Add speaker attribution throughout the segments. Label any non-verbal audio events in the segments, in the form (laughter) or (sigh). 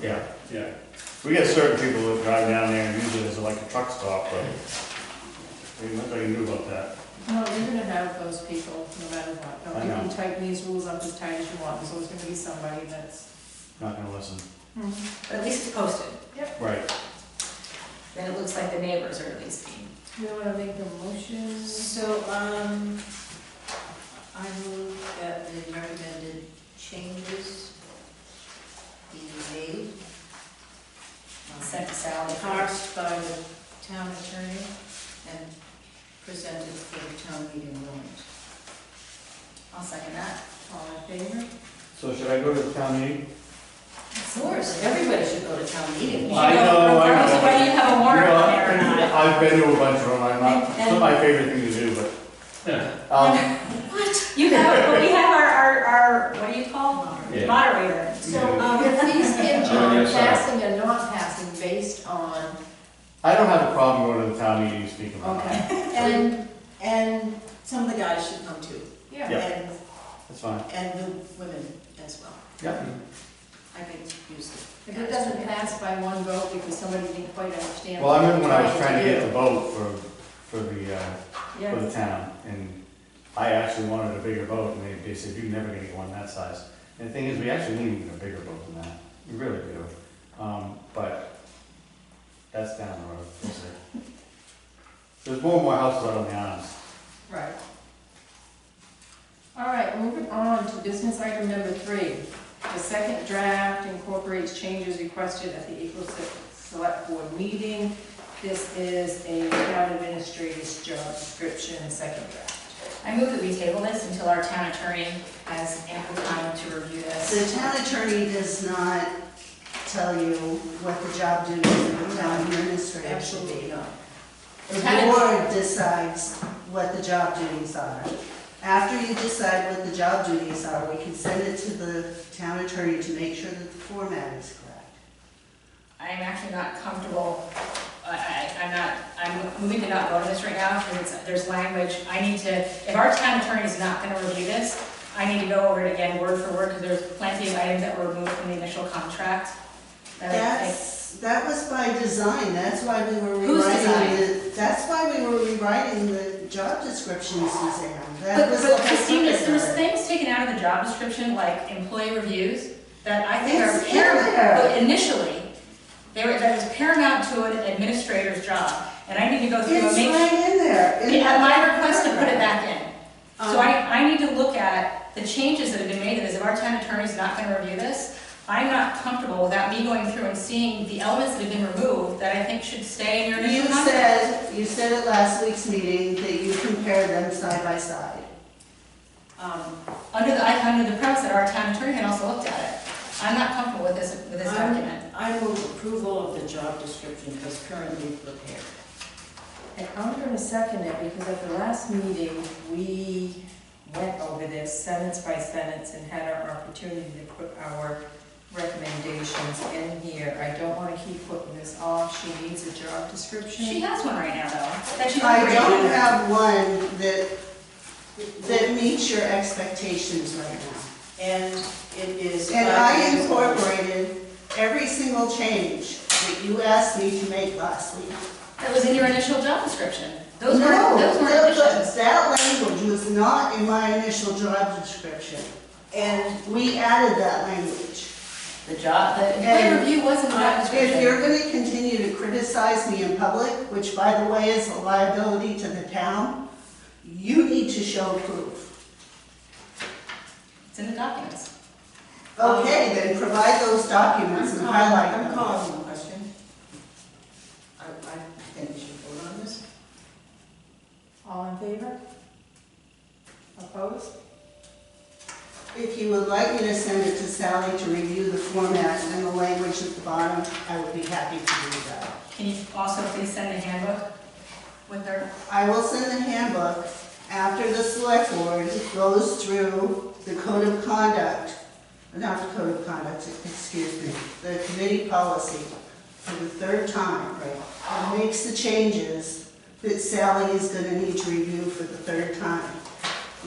Speaker 1: Yeah, yeah. We get certain people that drive down there and use it as like a truck stop, but there's nothing I can do about that.
Speaker 2: Well, you're gonna have those people, no matter what.
Speaker 1: I
Speaker 2: You can
Speaker 1: know.
Speaker 2: tighten these rules up as tight as you want, so it's gonna be somebody that's.
Speaker 1: Not gonna listen.
Speaker 2: Mm-hmm.
Speaker 3: But at least it's posted,
Speaker 1: Right.
Speaker 3: then it looks like the neighbors are at least being.
Speaker 2: You wanna make the motions?
Speaker 4: So, um, I move that the recommended changes be made. um,
Speaker 3: Sent to Sally.
Speaker 4: Parsed by the town attorney and presented for the town meeting warrant.
Speaker 3: I'll second that.
Speaker 2: All in favor?
Speaker 1: So should I go to the town meeting?
Speaker 3: Of course, everybody should go to town meeting.
Speaker 1: I know, I
Speaker 3: Regardless of
Speaker 1: know.
Speaker 3: whether you have a warrant on there or not.
Speaker 1: I've been to a bunch of them, I'm not, it's not
Speaker 3: And-
Speaker 1: my favorite thing to do, but. Um,
Speaker 3: What? You have, but we have our, our, our, what do you call?
Speaker 5: Yeah.
Speaker 3: Moderator.
Speaker 2: So, um, (laughs) please give
Speaker 5: Oh,
Speaker 2: John
Speaker 5: yes, sir.
Speaker 2: passing and not passing based on,
Speaker 1: I don't have a problem going to the town meeting, speaking of that.
Speaker 2: okay,
Speaker 4: And, and some of the guys should come too,
Speaker 2: yeah.
Speaker 4: and,
Speaker 1: That's fine.
Speaker 4: and the women as well.
Speaker 1: Yeah.
Speaker 4: I can use it.
Speaker 2: If it doesn't pass by one vote because somebody didn't quite understand.
Speaker 1: Well, I remember when I
Speaker 2: what
Speaker 1: was
Speaker 2: you're
Speaker 1: trying to get the
Speaker 2: do.
Speaker 1: vote for, for the, uh, for the town, and I actually wanted a bigger boat, and they, they said, you're never gonna get one that size. And the thing is, we actually need even a bigger boat than that, we really do, um, but that's down the road, we'll see. There's more and more houses out on the islands.
Speaker 2: Right. All right, moving on to business item number three. The second draft incorporates changes requested at the April se- Select Board meeting. This is a town administrator's job description, second draft.
Speaker 3: I move that we table this until our town attorney has ample time to review
Speaker 6: The
Speaker 3: this.
Speaker 6: town attorney does not tell you what the job duties of the town administrator should be.
Speaker 4: not.
Speaker 6: The board decides what the job duties are. After you decide what the job duties are, we can send it to the town attorney to make sure that the format is correct.
Speaker 3: I am actually not comfortable, I, I, I'm not, I'm moving to not vote on this right now, because it's- there's language, I need to, if our town attorney is not gonna review this, I need to go over it again word for word, because there's plenty of items that were removed from the initial contract. that I-
Speaker 6: That's, that was by design, that's why we were
Speaker 3: Whose
Speaker 6: rewriting
Speaker 3: design?
Speaker 6: the, that's why we were rewriting the job description, Suzanne. That
Speaker 3: But,
Speaker 6: was the
Speaker 3: but
Speaker 6: whole
Speaker 3: Christine,
Speaker 6: purpose
Speaker 3: there's,
Speaker 6: of
Speaker 3: there's
Speaker 6: it.
Speaker 3: things taken out of the job description, like employee reviews, that I think are
Speaker 6: It's in
Speaker 3: paramount,
Speaker 6: there.
Speaker 3: but initially, they were, that is paramount to an administrator's job, and I need to go through and
Speaker 6: It's
Speaker 3: make.
Speaker 6: right in there. in
Speaker 3: Yeah,
Speaker 6: that
Speaker 3: At my
Speaker 6: paragraph.
Speaker 3: request to put it back in. So I, I need to look at the changes that have been made, to this. if our town attorney's not gonna review this, I'm not comfortable without me going through and seeing the elements that have been removed that I think should stay in your
Speaker 6: You
Speaker 3: initial contract.
Speaker 6: said, you said at last week's meeting that you compared them side by side.
Speaker 3: um, under the, I- under the premise that our town attorney had also looked at it. I'm not comfortable with this, with this
Speaker 4: I'm-
Speaker 3: document.
Speaker 4: I move approval of the job description as currently prepared.
Speaker 2: And I'm gonna second it because at the last meeting, we went over this sentence by sentence and had our opportunity to put our recommendations in here. I don't wanna keep putting this off. She needs a job description.
Speaker 3: She has one right now, though, that she's
Speaker 6: I don't
Speaker 3: created.
Speaker 6: have one that, that meets your expectations right now.
Speaker 4: And it is. uh,
Speaker 6: And I incorporated every single change that you asked me to make last week.
Speaker 3: That was in your initial job description. Those were,
Speaker 6: No,
Speaker 3: those were
Speaker 6: that- that-
Speaker 3: additions.
Speaker 6: That language was not in my initial job description.
Speaker 4: And
Speaker 6: We added that language.
Speaker 3: The job, the employee
Speaker 6: And
Speaker 3: review was in the job
Speaker 6: If you're
Speaker 3: description.
Speaker 6: gonna continue to criticize me in public, which by the way is a liability to the town, you need to show proof.
Speaker 3: It's in the documents.
Speaker 6: Okay, then provide those documents
Speaker 4: I'm
Speaker 6: and
Speaker 4: calling,
Speaker 6: highlight
Speaker 4: I'm
Speaker 6: them.
Speaker 4: calling the question. I, I think we should vote on this.
Speaker 2: All in favor? Opposed?
Speaker 6: If you would like me to send it to Sally to review the format and the language at the bottom, I would be happy to do that.
Speaker 3: Can you also please send a handbook with her?
Speaker 6: I will send the handbook after the select board goes through the code of conduct, not the code of conduct, excuse me, the committee policy for the third time, right? And makes the changes that Sally is gonna need to review for the third time.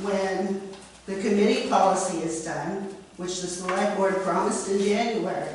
Speaker 6: When the committee policy is done, which the select board promised in January,